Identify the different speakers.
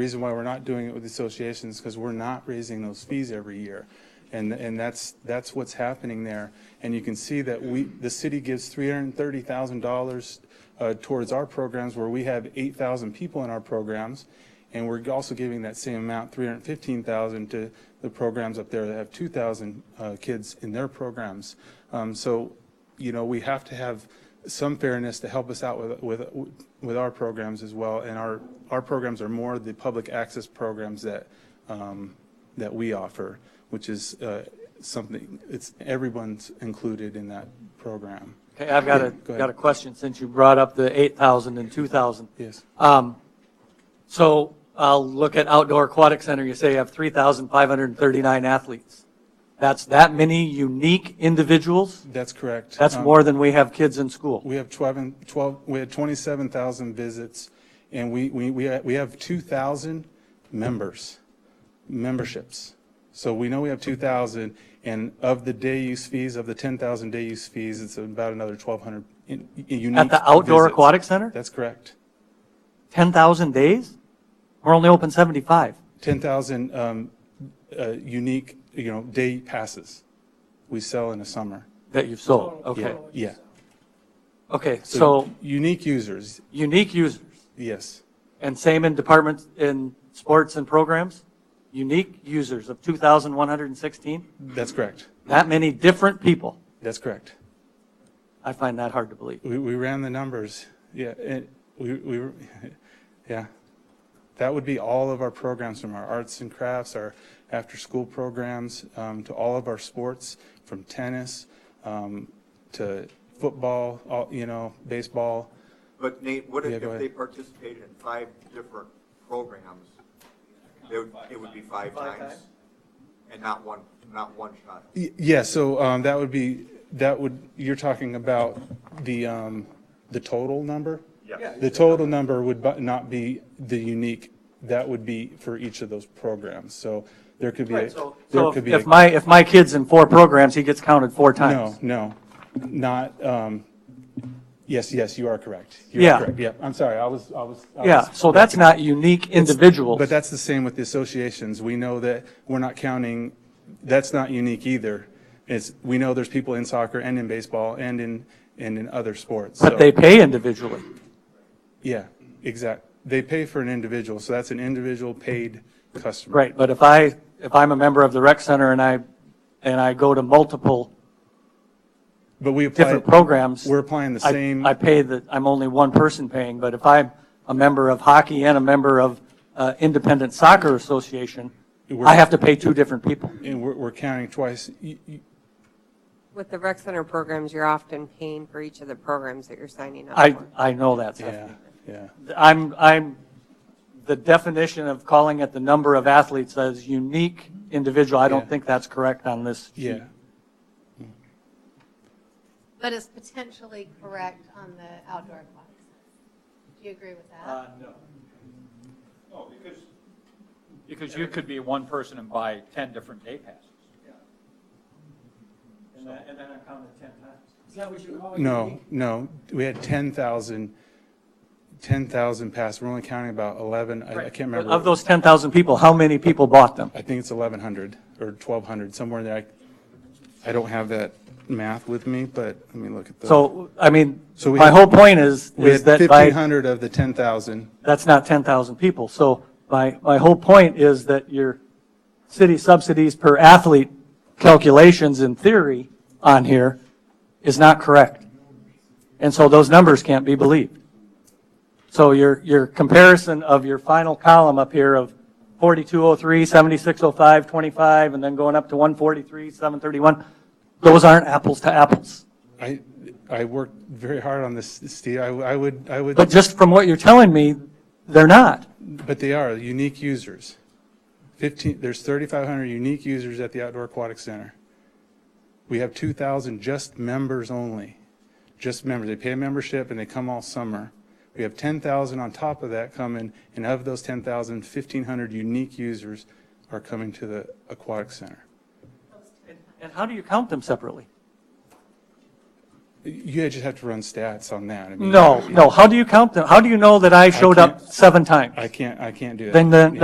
Speaker 1: Reason why we're not doing it with associations because we're not raising those fees every year. And, and that's, that's what's happening there. And you can see that we, the city gives $330,000 uh, towards our programs where we have 8,000 people in our programs. And we're also giving that same amount, 315,000, to the programs up there that have 2,000 uh, kids in their programs. Um, So, you know, we have to have some fairness to help us out with, with, with our programs as well. And our, our programs are more the public access programs that, um, that we offer, which is uh, something, it's, everyone's included in that program.
Speaker 2: Okay, I've got a,
Speaker 1: go ahead.
Speaker 2: got a question since you brought up the 8,000 and 2,000.
Speaker 1: Yes,
Speaker 2: So I'll look at Outdoor Aquatic Center, you say you have 3,539 athletes. That's that many unique individuals?
Speaker 1: that's correct.
Speaker 2: That's
Speaker 1: Um,
Speaker 2: more than we have kids in school.
Speaker 1: We have 12, and- 12, we had 27,000 visits, and we, we, we ha- we have 2,000 members, memberships. So we know we have 2,000, and of the day use fees, of the 10,000 day use fees, it's about another 1,200 in- i- unique.
Speaker 2: At the Outdoor
Speaker 1: visits.
Speaker 2: Aquatic Center,
Speaker 1: That's correct.
Speaker 2: 10,000 days? We're only open 75.
Speaker 1: 10,000 um, uh, unique, you know, day passes we sell in the summer.
Speaker 2: That you've sold, okay.
Speaker 1: Yeah.
Speaker 2: Okay, so
Speaker 1: Unique users,
Speaker 2: unique users,
Speaker 1: yes,
Speaker 2: and same in departments, in sports and programs? Unique users of 2,116?
Speaker 1: that's correct.
Speaker 2: That many different people?
Speaker 1: That's correct.
Speaker 2: I find that hard to believe.
Speaker 1: We, we ran the numbers, yeah, and we, we, were- yeah. That would be all of our programs, from our arts and crafts, our after-school programs, um, to all of our sports, from tennis, um, to football, all, you know, baseball.
Speaker 3: But Nate, what
Speaker 1: Yeah,
Speaker 3: if,
Speaker 1: go
Speaker 3: if
Speaker 1: ahead.
Speaker 3: they participated in five different programs? It would, it would be five times? And not one, not one shot?
Speaker 1: Y- Yeah, so, um, that would be, that would, you're talking about the, um, the total number?
Speaker 3: Yeah.
Speaker 1: The total number would bu- not be the unique, that would be for each of those programs, so there could be, a-
Speaker 2: So
Speaker 1: there
Speaker 2: so
Speaker 1: could
Speaker 2: if
Speaker 1: be. a-
Speaker 2: if my, if my kid's in four programs, he gets counted four
Speaker 1: No,
Speaker 2: times.
Speaker 1: no, not, um, yes, yes, you are correct. You are
Speaker 2: Yeah.
Speaker 1: correct. Yeah, I'm sorry, I was, I was. I
Speaker 2: Yeah,
Speaker 1: was-
Speaker 2: so that's not unique individuals.
Speaker 1: But that's the same with the associations. We know that we're not counting, that's not unique either. It's, we know there's people in soccer and in baseball and in, and in other sports. so-
Speaker 2: But they pay individually.
Speaker 1: Yeah, exact. They pay for an individual, so that's an individual paid customer.
Speaker 2: Right, but if I, if I'm a member of the rec center and I, and I go to multiple
Speaker 1: But we apply.
Speaker 2: different programs.
Speaker 1: We're applying the
Speaker 2: I-
Speaker 1: same.
Speaker 2: I pay the, I'm only one person paying, but if I'm a member of hockey and a member of uh, Independent Soccer Association, I have to pay two different people.
Speaker 1: And we're, we're counting twice. You- you-
Speaker 4: With the rec center programs, you're often paying for each of the programs that you're signing up
Speaker 2: I,
Speaker 4: for.
Speaker 2: I know that, Stephanie.
Speaker 1: Yeah, yeah.
Speaker 2: I'm, I'm, the definition of calling it the number of athletes as unique individual, I
Speaker 1: Yeah.
Speaker 2: don't think that's correct on this. sheet.
Speaker 1: Yeah,
Speaker 5: But it's potentially correct on the outdoor aquatics. Do you agree with that?
Speaker 6: No, because
Speaker 7: Oh, Because you could be one person and buy 10 different day passes.
Speaker 2: And then I counted 10 times.
Speaker 1: no, no, we had 10,000, 10,000 pass. We're only counting about 11, I I can't remember. Uh,
Speaker 2: Of those 10,000 people, how many people bought them?
Speaker 1: I think it's 1,100 or 1,200, somewhere in there. I- I don't have that math with me, but let me look at the.
Speaker 2: So, I mean,
Speaker 1: So we
Speaker 2: my
Speaker 1: had-
Speaker 2: whole point is,
Speaker 1: We
Speaker 2: is
Speaker 1: had
Speaker 2: that by.
Speaker 1: 1,500 of the 10,000.
Speaker 2: that's not 10,000 people. So my, my whole point is that your city subsidies per athlete calculations in theory on here is not correct. And so those numbers can't be believed. So your, your comparison of your final column up here of 4203, 7605, 25, and then going up to 143, 731, those aren't apples to apples.
Speaker 1: I, I worked very hard on this, Steve. I I would, I would,
Speaker 2: But just from what you're telling me, they're not.
Speaker 1: but they are unique users. 15, there's 3,500 unique users at the Outdoor Aquatic Center. We have 2,000 just members only, just members. They pay a membership and they come all summer. We have 10,000 on top of that coming, and of those 10,000, 1,500 unique users are coming to the aquatic center.
Speaker 2: And how do you count them separately?
Speaker 1: You just have to run stats on that. I mean,
Speaker 2: No, no, how do you count them? How do you know that I showed up
Speaker 1: can't-
Speaker 2: seven times?
Speaker 1: I can't, I can't do that.
Speaker 2: Then the-